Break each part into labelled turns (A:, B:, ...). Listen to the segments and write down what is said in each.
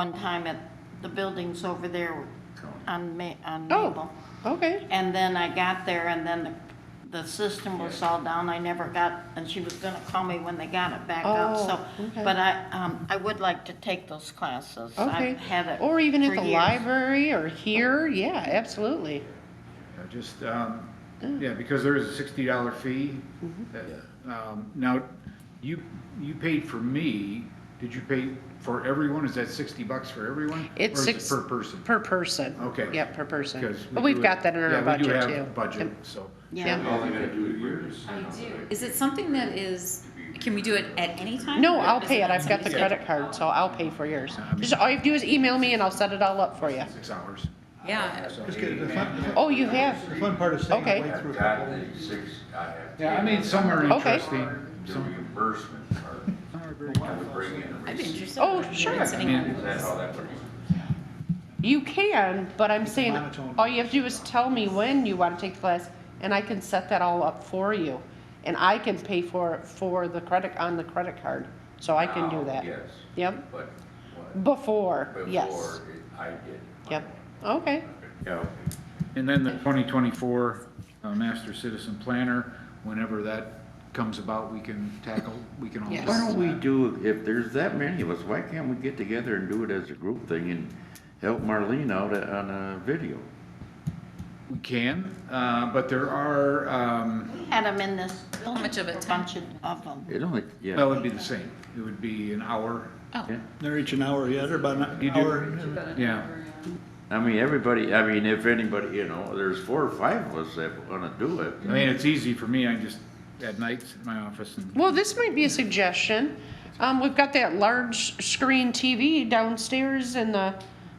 A: one time at the buildings over there on Ma, on
B: Oh,
A: Maple.
B: okay.
A: And then I got there and then the, the system was all down. I never got, and she was gonna call me when they got it back up,
B: Oh,
A: so.
B: okay.
A: But I, um, I would like to take those classes.
B: Okay.
A: I've had it
B: Or even
A: for
B: at the
A: years.
B: library or here, yeah, absolutely.
C: Yeah, Just, um,
B: Mm.
C: yeah, because there is a sixty dollar fee.
B: Mm-hmm.
C: that, um, Now, you, you paid for me, did you pay for everyone? Is that sixty bucks for everyone?
B: It's
C: Or is it
B: six.
C: Per person?
B: Per person.
C: Okay.
B: Yep, per person.
C: Because we
B: But we've
C: do-
B: got that in our budget too.
C: Yeah, we do have a budget,
B: Yep.
C: so.
A: Yeah.
D: Is it something that is, can we do it at any time?
B: No,
D: Or
B: I'll
D: is
B: pay it.
D: on
B: I've got the
D: somebody's
B: credit card, so I'll pay for yours.
C: I mean-
B: Just all you have to do is email me and I'll set it all up for you.
C: Six hours.
D: schedule? Yeah,
C: So-
E: Just get, the fun,
B: Oh, you have?
E: the fun part is saying
B: Okay.
E: I went
F: I've
E: through a
F: got
E: couple.
F: the six, I have.
C: Yeah, I mean, some are
B: Okay.
C: interesting.
F: The
C: Some
F: reimbursement part,
C: are very.
F: I would bring in a
D: I'd be
F: receipt.
D: interested.
B: Oh,
D: in
B: sure.
D: sitting
C: Yeah, I
D: on
C: mean-
F: Is that
D: those.
F: how that works?
B: You can, but I'm saying,
E: monotone.
B: all you have to do is tell me when you want to take the class, and I can set that all up for you. And I can pay for, it for the credit, on the credit card, so I can do
F: Now,
B: that.
F: Yes,
B: Yep,
F: but what-
B: before, yes,
F: before it- I did.
B: yep, okay,
C: Yeah. And then the 2024 uh, Master Citizen Planner, whenever that comes about, we can tackle, we can all.
B: Yes.
G: Why don't we do, if there's that many of us, why can't we get together and do it as a group thing and help Marlene out on a video?
C: We can, uh, but there are, um,
A: Had them in this building.
D: much of a
A: for
D: time?
A: Bunch of- of them.
G: It only, yeah,
C: well, it'd be the same. It would be an hour.
D: Oh,
G: yeah.
E: They're each an hour yet, or about an
C: You do-
E: hour.
C: Yeah.
G: I mean, everybody, I mean, if anybody, you know, there's four or five of us that wanna do it.
C: I mean, it's easy for me. I just, at nights in my office and,
B: Well, this might be a suggestion. Um, we've got that large screen TV downstairs in the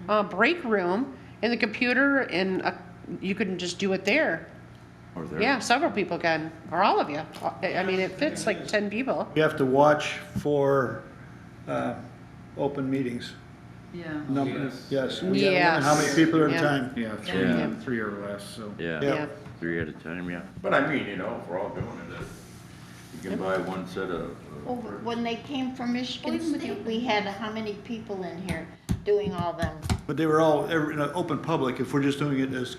B: uh, break room, and the computer, and uh, you can just do it there.
G: Or there-
B: Yeah, several people can, or all of you. Uh, I I mean, it fits like ten people.
E: You have to watch for, uh, open meetings.
H: Yeah.
E: Number, Oh, yes. we gotta
B: Yes.
E: learn How many people at a
B: Yeah.
E: time?
C: yeah,
G: Yeah.
C: three, three or less, so.
E: Yeah.
G: Yeah,
B: Yeah.
G: three at a time, yeah.
F: But I mean, you know, if we're all doing it, uh,
G: You can buy one set of. uh,
A: Well, When they came from Michigan
D: Believe me.
A: State, we had how many people in here doing all them?
E: But they were all, every, in an open public, if we're just doing it as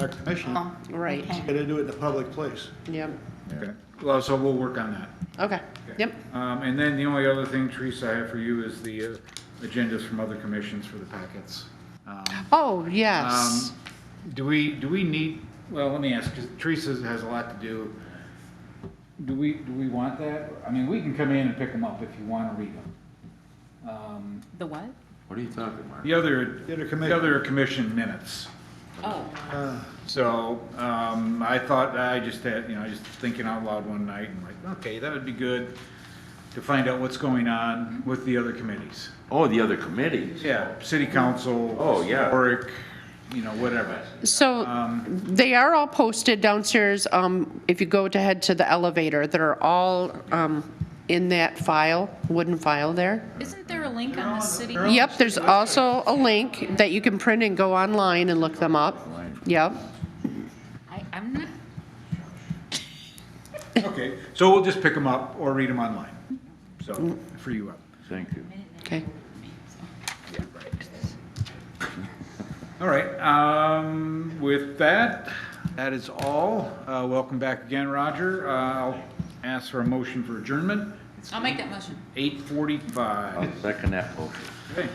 E: our commission,
B: Uh-huh.
A: Oh,
B: Right.
A: okay.
E: gotta do it in a public place.
B: Yep.
C: Okay. Well, so we'll work on that.
B: Okay. Yep.
C: Um, and then the only other thing, Teresa, I have for you is the uh, agendas from other commissions for the packets. Um,
B: Oh yes.
C: Um, Do we, do we need, well, let me ask, because Teresa has a lot to do. Do we, do we want that? I mean, we can come in and pick them up if you want to read them. Um,
D: the what?
G: What are you talking, Mark?
C: The other,
E: The other commi-
C: the other commission minutes.
D: Oh,
E: Uh,
C: So, um, I thought, I just had, you know, just thinking out loud one night and like, okay, that would be good to find out what's going on with the other committees.
G: Oh, the other committees.
C: Yeah, city council.
G: Oh, yeah.
C: Historic, you know, whatever.
B: so they are all posted downstairs. Um, if you go to head to the elevator, they're all um, in that file, wooden file there.
D: isn't there a link on the city?
B: Yep. There's also a link that you can print and go online and look them up. Yep.
D: I, I'm not,
C: Okay, so we'll just pick them up or read them online. So, free you up.
G: Thank you.
B: Okay.
C: All right, um, with that, that is all. Uh, welcome back again, Roger. Uh, I'll ask for a motion for adjournment.
D: I'll make that motion.
C: Eight forty-five.
G: I'll second that motion.
C: Okay,